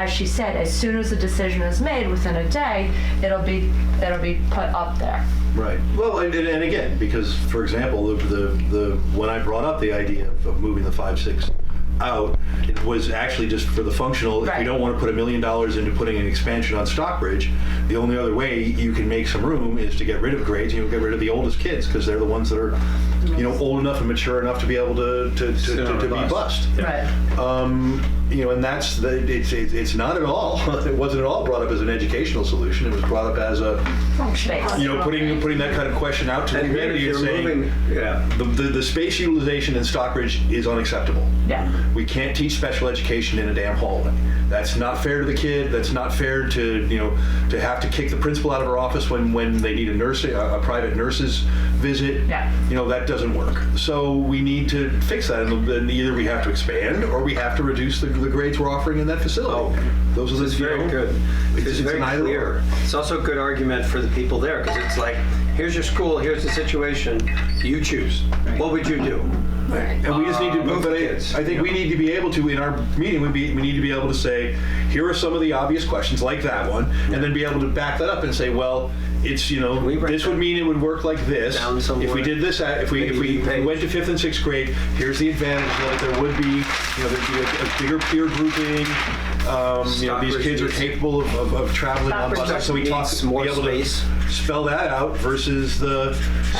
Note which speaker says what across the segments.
Speaker 1: as she said, as soon as the decision is made, within a day, it'll be, it'll be put up there.
Speaker 2: Right. Well, and, and and again, because for example, the, the, the when I brought up the idea of, of moving the five six out, it was actually just for the functional. If
Speaker 1: Right.
Speaker 2: you don't want to put a million dollars into putting an expansion on Stockbridge, the only other way you can make some room is to get rid of grades. You know, get rid of the oldest kids because they're the ones that are, you know, old enough and mature enough to be able to to, to,
Speaker 3: Sit
Speaker 2: to,
Speaker 3: on a
Speaker 2: to be
Speaker 3: bus.
Speaker 2: bused.
Speaker 1: Right.
Speaker 2: Um, you know, and that's the, it's, it's it's not at all. It wasn't at all brought up as an educational solution. It was brought up as a
Speaker 1: Space.
Speaker 2: you know, putting putting that kind of question out to
Speaker 3: And here
Speaker 2: humanity and
Speaker 3: you're
Speaker 2: saying
Speaker 3: moving, yeah.
Speaker 2: the, the, the space utilization in Stockbridge is unacceptable.
Speaker 1: Yeah.
Speaker 2: We can't teach special education in a damn hallway. That's not fair to the kid. That's not fair to you know to have to kick the principal out of her office when, when they need a nurse a, a private nurse's visit.
Speaker 1: Yeah.
Speaker 2: You know that doesn't work. So we need to fix that, and then either we have to expand or we have to reduce the, the grades we're offering in that facility.
Speaker 3: Oh.
Speaker 2: Those are the
Speaker 3: It's
Speaker 2: you
Speaker 3: very
Speaker 2: know,
Speaker 3: good.
Speaker 2: It's, it's
Speaker 3: It's very
Speaker 2: an either
Speaker 3: clear.
Speaker 2: or.
Speaker 3: It's also a good argument for the people there, because it's like, here's your school, here's the situation, you choose. What would you do?
Speaker 2: And we just need to,
Speaker 3: Uh,
Speaker 2: but I,
Speaker 3: kids.
Speaker 2: I think we need to be able to, in our meeting, we be, we need to be able to say, here are some of the obvious questions, like that one, and then be able to back that up and say, well, it's, you know,
Speaker 3: we write
Speaker 2: this would
Speaker 3: that
Speaker 2: mean it would work like this.
Speaker 3: down
Speaker 2: If we
Speaker 3: somewhere?
Speaker 2: did this, at- if we, if
Speaker 3: Maybe
Speaker 2: we
Speaker 3: you pay-
Speaker 2: went to fifth and sixth grade, here's the advantage, that there would be, you know, there'd be a a bigger peer grouping. Um, you know, these
Speaker 3: Stockbridge
Speaker 2: kids are
Speaker 3: needs-
Speaker 2: capable of, of- of traveling on
Speaker 1: Stockbridge
Speaker 2: buses, so we talk,
Speaker 3: needs
Speaker 2: be
Speaker 3: more
Speaker 2: able to
Speaker 3: space.
Speaker 2: spell that out versus the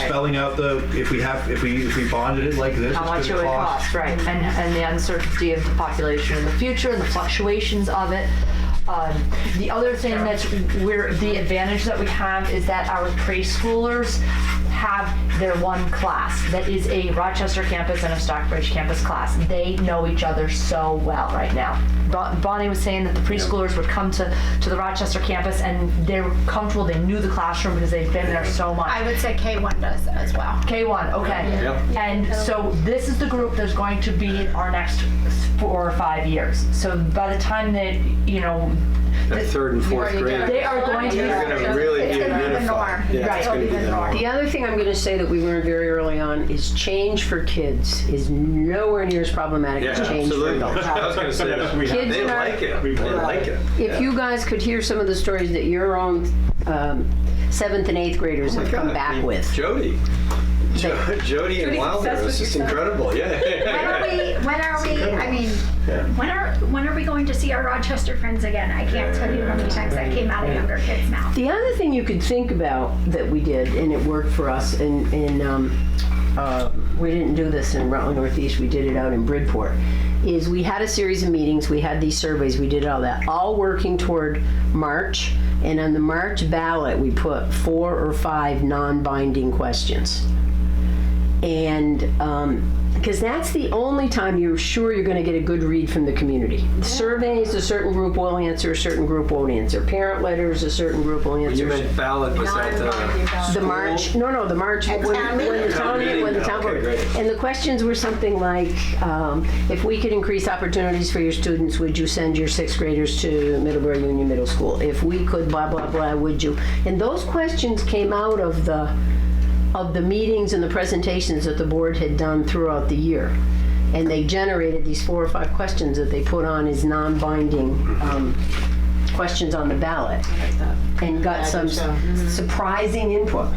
Speaker 2: spelling out the, if we have, if we, if we bonded it like this,
Speaker 1: How
Speaker 2: it's
Speaker 1: much it
Speaker 2: gonna
Speaker 1: would
Speaker 2: cost.
Speaker 1: cost, right, and, and the uncertainty of the population in the future and the fluctuations of it. Um, the other thing that's we're, the advantage that we have is that our preschoolers have their one class that is a Rochester campus and a Stockbridge campus class. They know each other so well right now. Bon- Bonnie was saying that the preschoolers would come to, to the Rochester campus and they're comfortable, they knew the classroom because they've been there so much.
Speaker 4: I would say K1 does as well.
Speaker 1: K1, okay.
Speaker 3: Yep.
Speaker 1: And so this is the group that's going to be our next four or five years. So by the time that, you know,
Speaker 3: That third and fourth
Speaker 4: Already done.
Speaker 3: grade.
Speaker 1: they are going to be.
Speaker 3: They're going to really
Speaker 4: It's
Speaker 3: be
Speaker 4: gonna be the norm.
Speaker 3: unified. Yeah,
Speaker 1: Right.
Speaker 3: it's going to be the norm.
Speaker 5: The other thing I'm going to say that we learned very early on is change for kids is nowhere near as problematic
Speaker 3: Yeah,
Speaker 5: as change
Speaker 3: absolutely.
Speaker 5: for adults.
Speaker 3: I was going to say that.
Speaker 5: Kids
Speaker 3: They
Speaker 5: in our-
Speaker 3: like it. They like it.
Speaker 5: If you guys could hear some of the stories that your own um, seventh and eighth graders have come
Speaker 3: Oh God, I
Speaker 5: back
Speaker 3: mean,
Speaker 5: with.
Speaker 3: Jody. Jo- Jody and Wilder. This is incredible.
Speaker 6: When are
Speaker 3: Yeah.
Speaker 6: we, when are we, I mean, when are, when are we going to see our Rochester friends again? I can't tell you how many times that came out of younger kids' mouth.
Speaker 5: The other thing you could think about that we did, and it worked for us, and, and um, uh, we didn't do this in Rutland Northeast, we did it out in Bridport, is we had a series of meetings, we had these surveys, we did all that, all working toward March, and on the March ballot, we put four or five non binding questions. And because that's the only time you're sure you're going to get a good read from the community. Surveys, a certain group will answer, a certain group won't answer. Parent letters, a certain group will answer.
Speaker 3: You meant ballot was at the
Speaker 5: The March, no, no, the March, when
Speaker 4: town
Speaker 5: when the
Speaker 4: meeting.
Speaker 5: town,
Speaker 3: meeting,
Speaker 5: when the town
Speaker 3: okay,
Speaker 5: board.
Speaker 3: great.
Speaker 5: And the questions were something like, um, if we could increase opportunities for your students, would you send your sixth graders to Middlebury Union Middle School? If we could blah, blah, blah, would you? And those questions came out of the, of the meetings and the presentations that the board had done throughout the year. And they generated these four or five questions that they put on as non-binding um, questions on the ballot. And got some
Speaker 6: uh, mm-hmm.
Speaker 5: surprising input.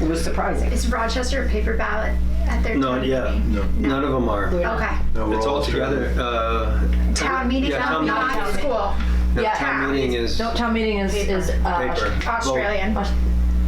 Speaker 5: It was surprising.
Speaker 6: Is Rochester a paper ballot at their town
Speaker 3: Not yet.
Speaker 6: meeting?
Speaker 3: None of them are.
Speaker 6: Okay.
Speaker 2: No, we're
Speaker 3: It's all together. Uh,
Speaker 6: Town meeting,
Speaker 3: Yeah, town
Speaker 6: not
Speaker 3: meeting.
Speaker 6: school,
Speaker 3: no,
Speaker 1: Yeah.
Speaker 3: town meeting is
Speaker 1: No, town meeting is, is,
Speaker 3: paper.
Speaker 1: uh,
Speaker 4: Australian.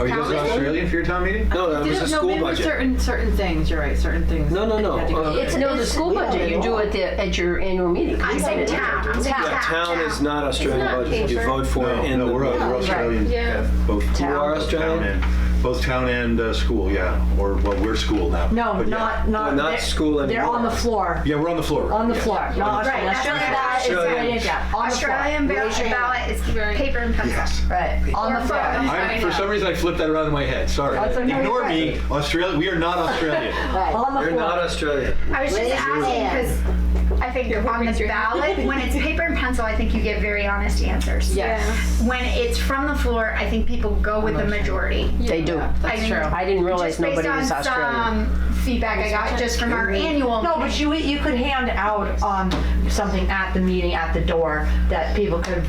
Speaker 2: Are you guys in Australia for your town meeting?
Speaker 3: No, that Uh, was
Speaker 7: Didn't-
Speaker 3: a
Speaker 7: no,
Speaker 3: school
Speaker 7: maybe
Speaker 3: budget.
Speaker 7: certain certain things. You're right, certain things.
Speaker 3: No, no, no.
Speaker 7: Yeah,
Speaker 3: Uh,
Speaker 5: It's, no, the school budget you do at the, at your annual meeting.
Speaker 6: I'm saying town.
Speaker 3: yeah, town is not Australian
Speaker 4: It's not
Speaker 3: budget. You
Speaker 4: paper.
Speaker 3: vote for it
Speaker 2: No,
Speaker 3: in
Speaker 2: no,
Speaker 3: the
Speaker 2: we're, we're Australian.
Speaker 4: Yeah.
Speaker 2: yeah, Both.
Speaker 3: You are
Speaker 2: both town
Speaker 3: Australian?
Speaker 2: and- Both town and uh, school, yeah, or, well, we're school now.
Speaker 1: no,
Speaker 2: but yeah.
Speaker 1: not, not.
Speaker 3: Well, not
Speaker 1: they're-
Speaker 3: school
Speaker 1: They're
Speaker 3: anymore.
Speaker 1: on the floor,
Speaker 2: Yeah, we're on the floor.
Speaker 1: on the
Speaker 2: Yeah.
Speaker 1: floor, not
Speaker 6: Right,
Speaker 1: Australian.
Speaker 6: Australian.
Speaker 1: That is-
Speaker 3: Australian.
Speaker 1: yeah, on the floor.
Speaker 6: Australian ballot,
Speaker 4: Raise your
Speaker 6: ballot is paper and pencil.
Speaker 2: Yes.
Speaker 1: Right, on the
Speaker 6: Or
Speaker 1: floor.
Speaker 6: vote.
Speaker 2: I, for some reason, I flipped that around in my head, sorry.
Speaker 1: That's okay.
Speaker 2: Ignore me, Australia, we are not Australian.
Speaker 1: On the
Speaker 3: You're
Speaker 1: floor.
Speaker 3: not Australian.
Speaker 6: I was just asking because I think on the ballot, when it's paper and pencil, I think you get very honest answers.
Speaker 7: Yes.
Speaker 6: When it's from the floor, I think people go with the majority.
Speaker 5: They do.
Speaker 7: That's
Speaker 6: I mean,
Speaker 7: true.
Speaker 5: I didn't realize
Speaker 6: Just based
Speaker 5: nobody was
Speaker 6: on
Speaker 5: Australian.
Speaker 6: some feedback I got just from our annual.
Speaker 1: No, but you, you could hand out, um, something at the meeting, at the door, that people could